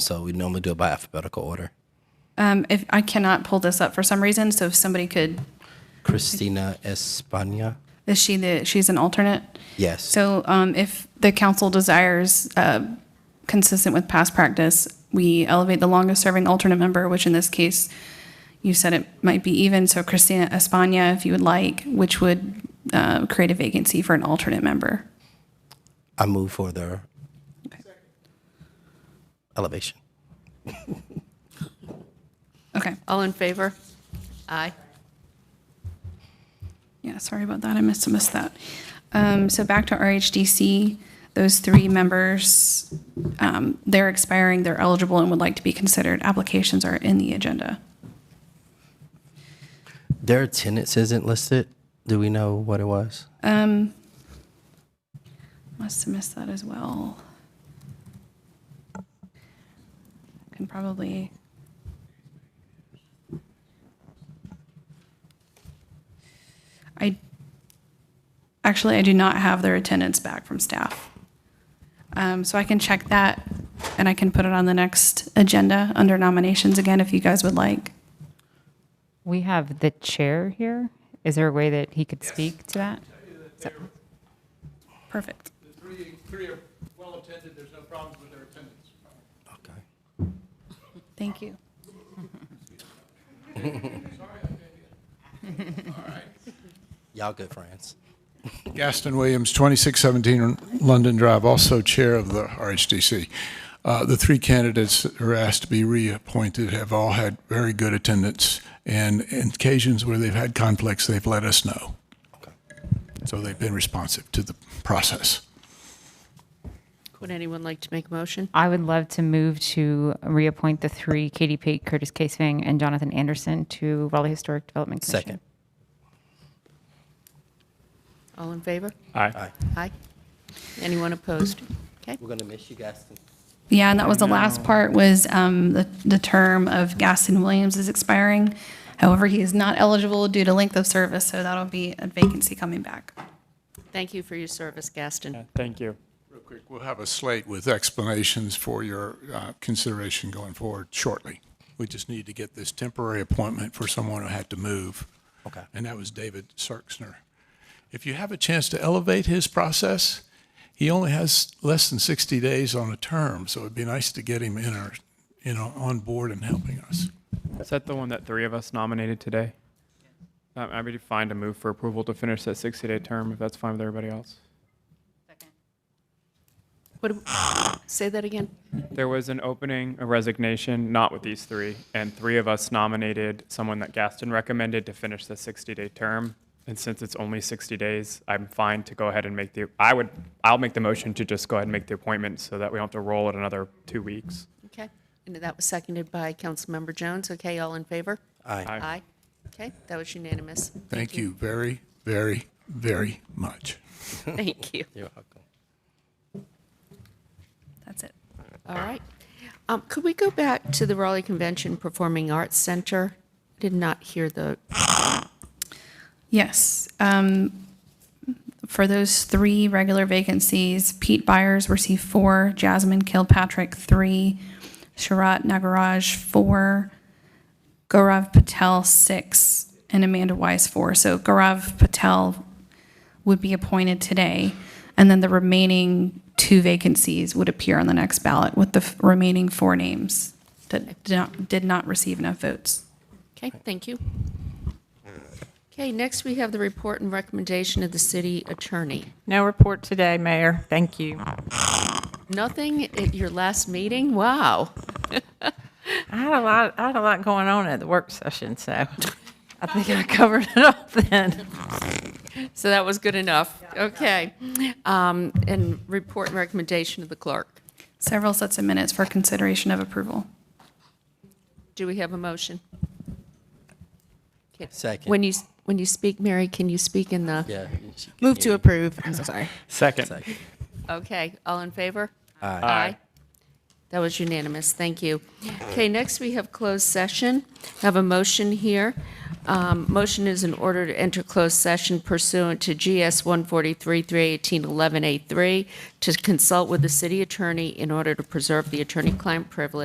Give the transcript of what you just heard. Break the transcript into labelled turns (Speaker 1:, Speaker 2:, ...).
Speaker 1: So we normally do it by alphabetical order.
Speaker 2: Um, if, I cannot pull this up for some reason, so if somebody could,
Speaker 1: Christina Espana.
Speaker 2: is she the, she's an alternate?
Speaker 1: Yes.
Speaker 2: So, um, if the council desires, uh, consistent with past practice, we elevate the longest-serving alternate member, which in this case, you said it might be even, so Christina Espana, if you would like, which would, uh, create a vacancy for an alternate member.
Speaker 1: I move for the elevation.
Speaker 2: Okay,
Speaker 3: All in favor? Aye.
Speaker 2: yeah, sorry about that, I must have missed that. Um, so back to RHDC, those three members, um, they're expiring, they're eligible and would like to be considered. Applications are in the agenda.
Speaker 1: Their attendance isn't listed. Do we know what it was?
Speaker 2: Must have missed that as well. Can probably. I, actually, I do not have their attendance back from staff. Um, so I can check that and I can put it on the next agenda under nominations again if you guys would like.
Speaker 4: We have the chair here. Is there a way that he could speak to that?
Speaker 2: Perfect.
Speaker 5: The three, three are well attended, there's no problems with their attendance.
Speaker 1: Okay.
Speaker 2: Thank you.
Speaker 1: Y'all good friends.
Speaker 5: Gaston Williams, 2617 London Drive, also Chair of the RHDC. Uh, The three candidates that are asked to be reappointed have all had very good attendance, and in occasions where they've had conflicts, they've let us know.
Speaker 1: Okay.
Speaker 5: So they've been responsive to the process.
Speaker 3: Would anyone like to make a motion?
Speaker 4: I would love to move to reappoint the three, Katie Pate, Curtis Casevang, and Jonathan Anderson to Raleigh Historic Development Commission.
Speaker 1: Second.
Speaker 3: All in favor?
Speaker 1: Aye.
Speaker 3: Aye. Anyone opposed? Okay.
Speaker 1: We're gonna miss you, Gaston.
Speaker 2: Yeah, and that was the last part was um, the, the term of Gaston Williams is expiring. However, he is not eligible due to length of service, so that'll be a vacancy coming back.
Speaker 3: Thank you for your service, Gaston.
Speaker 6: Thank you.
Speaker 5: Real quick, we'll have a slate with explanations for your uh, consideration going forward shortly. We just need to get this temporary appointment for someone who had to move.
Speaker 1: Okay.
Speaker 5: And that was David Sarksner. If you have a chance to elevate his process, he only has less than 60 days on a term, so it'd be nice to get him in our, you know, on board and helping us.
Speaker 6: Is that the one that three of us nominated today? Um, I'm happy to find a move for approval to finish that 60-day term, if that's fine with everybody else.
Speaker 3: What, say that again?
Speaker 6: There was an opening, a resignation, not with these three, and three of us nominated someone that Gaston recommended to finish the 60-day term. And since it's only 60 days, I'm fine to go ahead and make the, I would, I'll make the motion to just go ahead and make the appointment so that we don't have to roll it another two weeks.
Speaker 3: Okay. And that was seconded by Councilmember Jones. Okay, all in favor?
Speaker 1: Aye.
Speaker 3: Aye. Okay, that was unanimous.
Speaker 5: Thank you very, very, very much.
Speaker 3: Thank you.
Speaker 1: You're welcome.
Speaker 2: That's it.
Speaker 3: All right. Um, Could we go back to the Raleigh Convention Performing Arts Center? Did not hear the,
Speaker 2: Yes. um, For those three regular vacancies, Pete Byers received four, Jasmine Kilpatrick, three, Sharat Nagaraj, four, Gaurav Patel, six, and Amanda Wise, four. So Gaurav Patel would be appointed today, and then the remaining two vacancies would appear on the next ballot with the f- remaining four names that did not- did not receive enough votes.
Speaker 3: okay, thank you. Okay, next we have the report and recommendation of the city attorney.
Speaker 7: No report today, Mayor. Thank you.
Speaker 3: Nothing at your last meeting? Wow.
Speaker 7: I had a lot, I had a lot going on at the work session, so I think I covered it all then.
Speaker 3: So that was good enough. Okay. Um, And report and recommendation of the clerk.
Speaker 2: Several sets of minutes for consideration of approval.
Speaker 3: Do we have a motion? Okay.
Speaker 1: Second.
Speaker 3: When you, s- when you speak, Mary, can you speak in the?
Speaker 1: Yeah.
Speaker 8: Move to approve. I'm so sorry.
Speaker 6: Second.
Speaker 1: Second.
Speaker 3: Okay, all in favor?
Speaker 1: Aye.
Speaker 3: That was unanimous, thank you. Okay, next we have closed session. Have a motion here. Um, Motion is in order to enter closed session pursuant to GS 143-318-11A3 to consult with the city attorney in order to preserve the attorney-client privilege